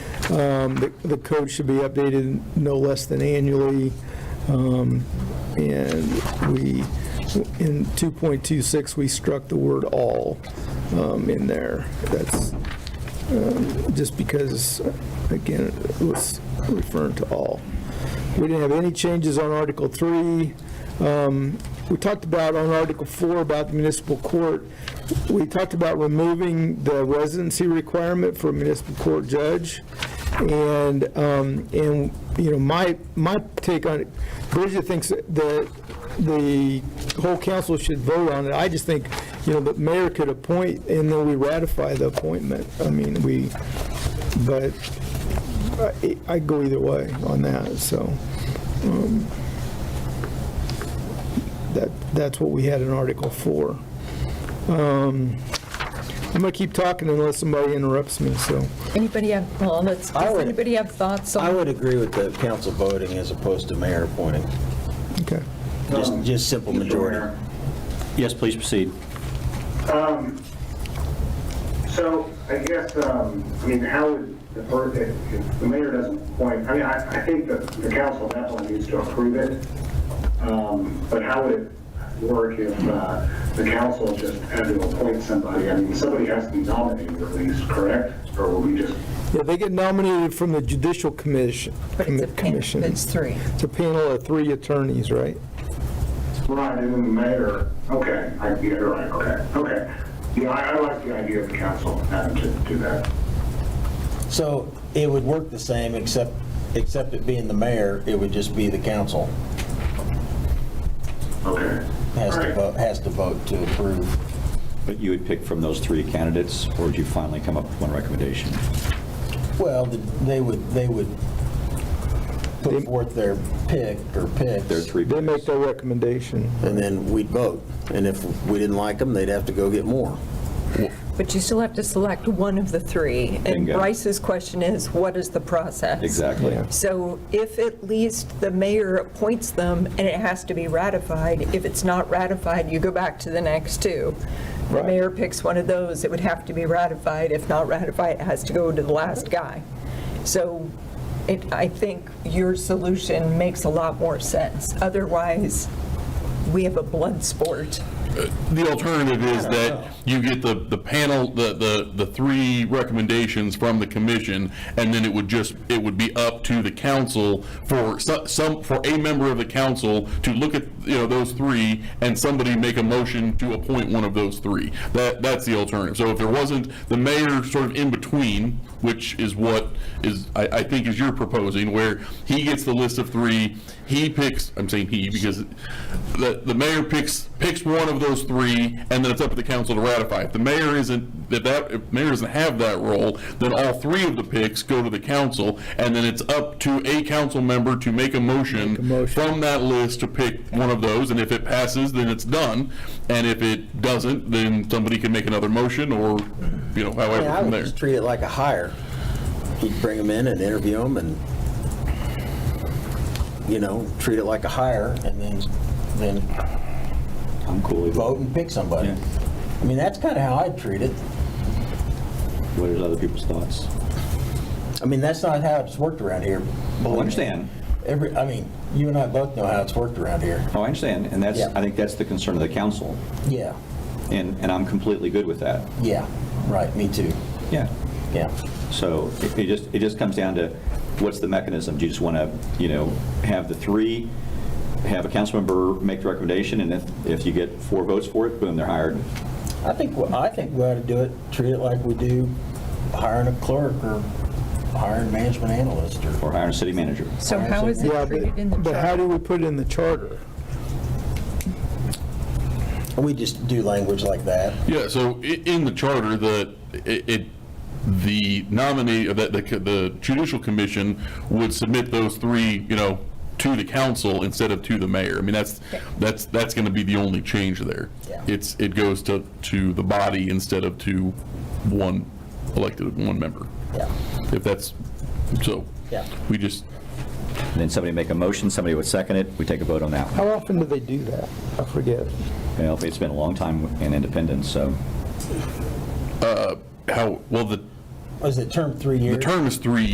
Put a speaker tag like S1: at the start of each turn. S1: Um, The the code should be updated no less than annually. Um, And we, in 2.26, we struck the word "all" um, in there. That's um, just because, again, it was referring to all. We didn't have any changes on Article 3. Um, We talked about on Article 4 about the municipal court. We talked about removing the residency requirement for a municipal court judge. And, um, and, you know, my, my take on it, Bridget thinks that the whole council should vote on it. I just think, you know, the mayor could appoint and then we ratify the appointment. I mean, we, but I- I'd go either way on that, so. um, That, that's what we had in Article 4. Um, I'm going to keep talking unless somebody interrupts me, so.
S2: Anybody have, well, let's,
S3: I
S2: does
S3: would-
S2: anybody have thoughts
S3: I
S2: on,
S3: would agree with the council voting as opposed to mayor appointing,
S1: Okay.
S3: just, just simple majority.
S4: Yes, please proceed.
S5: So I guess, um, I mean, how would, the per- if if the mayor doesn't appoint, I mean, I, I think that the council definitely needs to approve it. Um, But how would it work if uh, the council just had to appoint somebody? I mean, somebody has to be nominated at least, correct? Or will we just,
S1: Yeah, they get nominated from the Judicial Commission.
S2: but it's a
S1: Commission.
S2: panel, it's three.
S1: It's a panel of three attorneys, right?
S5: right, and then the mayor, okay, I, yeah, you're right, okay, okay. Yeah, I, I like the idea of the council having to do that.
S3: So it would work the same, except, except it being the mayor, it would just be the council
S5: Okay.
S3: has
S5: All
S3: to
S5: right.
S3: vote, has to vote to approve.
S4: But you would pick from those three candidates, or would you finally come up with one recommendation?
S3: Well, the- they would, they would put forth their pick or
S4: There are
S3: picks,
S4: three.
S1: They make their recommendation.
S3: and then we'd vote. And if we didn't like them, they'd have to go get more.
S2: But you still have to select one of the three. And
S4: Bingo.
S2: Bryce's question is, what is the process?
S4: Exactly.
S1: Yeah.
S2: So if at least the mayor appoints them and it has to be ratified, if it's not ratified, you go back to the next two. The
S1: Right.
S2: mayor picks one of those, it would have to be ratified. If not ratified, it has to go to the last guy. So it, I think your solution makes a lot more sense. Otherwise, we have a blood sport.
S6: The alternative is that you get the, the panel, the, the, the three recommendations from the commission, and then it would just, it would be up to the council for so- some, for a member of the council to look at, you know, those three, and somebody make a motion to appoint one of those three. That, that's the alternative. So if there wasn't the mayor sort of in between, which is what is, I, I think is you're proposing, where he gets the list of three, he picks, I'm saying he, because the, the mayor picks, picks one of those three, and then it's up to the council to ratify. If the mayor isn't, if that, if mayor doesn't have that role, then all three of the picks go to the council, and then it's up to a council member to make a motion
S1: motion.
S6: from that list to pick one of those, and if it passes, then it's done, and if it doesn't, then somebody can make another motion, or, you know, however
S3: Yeah, I
S6: from
S3: would
S6: there.
S3: just treat it like a hire. You'd bring them in and interview them and, you know, treat it like a hire and then, then
S4: I'm cool with
S3: vote and pick somebody.
S4: Yeah.
S3: I mean, that's kind of how I'd treat it.
S4: What are other people's thoughts?
S3: I mean, that's not how it's worked around here.
S4: Well, Oh, I understand.
S3: Every, I mean, you and I both know how it's worked around here.
S4: Oh, I understand, and that's,
S3: Yeah.
S4: I think that's the concern of the council,
S3: Yeah,
S4: and, and I'm completely good with that.
S3: yeah, right, me too,
S4: Yeah.
S3: yeah.
S4: So it it just, it just comes down to, what's the mechanism? Do you just want to, you know, have the three, have a council member make the recommendation, and if, if you get four votes for it, boom, they're hired?
S3: I think, I think we ought to do it, treat it like we do hiring a clerk or hiring a management analyst or
S4: Or hiring a city manager?
S2: So how is
S1: Yeah,
S2: it treated in the
S1: but, but how do we put it in the charter?
S3: We just do language like that.
S6: Yeah, so i- in the charter, the, it, it- the nominee, uh, the, the co- the judicial commission would submit those three, you know, to the council instead of to the mayor. I mean, that's, that's, that's gonna be the only change there.
S3: Yeah.
S6: It's, it goes to, to the body instead of to one elected, one member.
S3: Yeah.
S6: If that's, so.
S3: Yeah.
S6: We just,
S4: And Then somebody make a motion, somebody would second it, we take a vote on that one.
S1: How often do they do that? I forget.
S4: You know, it's been a long time in Independence, so.
S6: how, well, the,
S3: Was it term three
S6: the
S3: years?
S6: term is three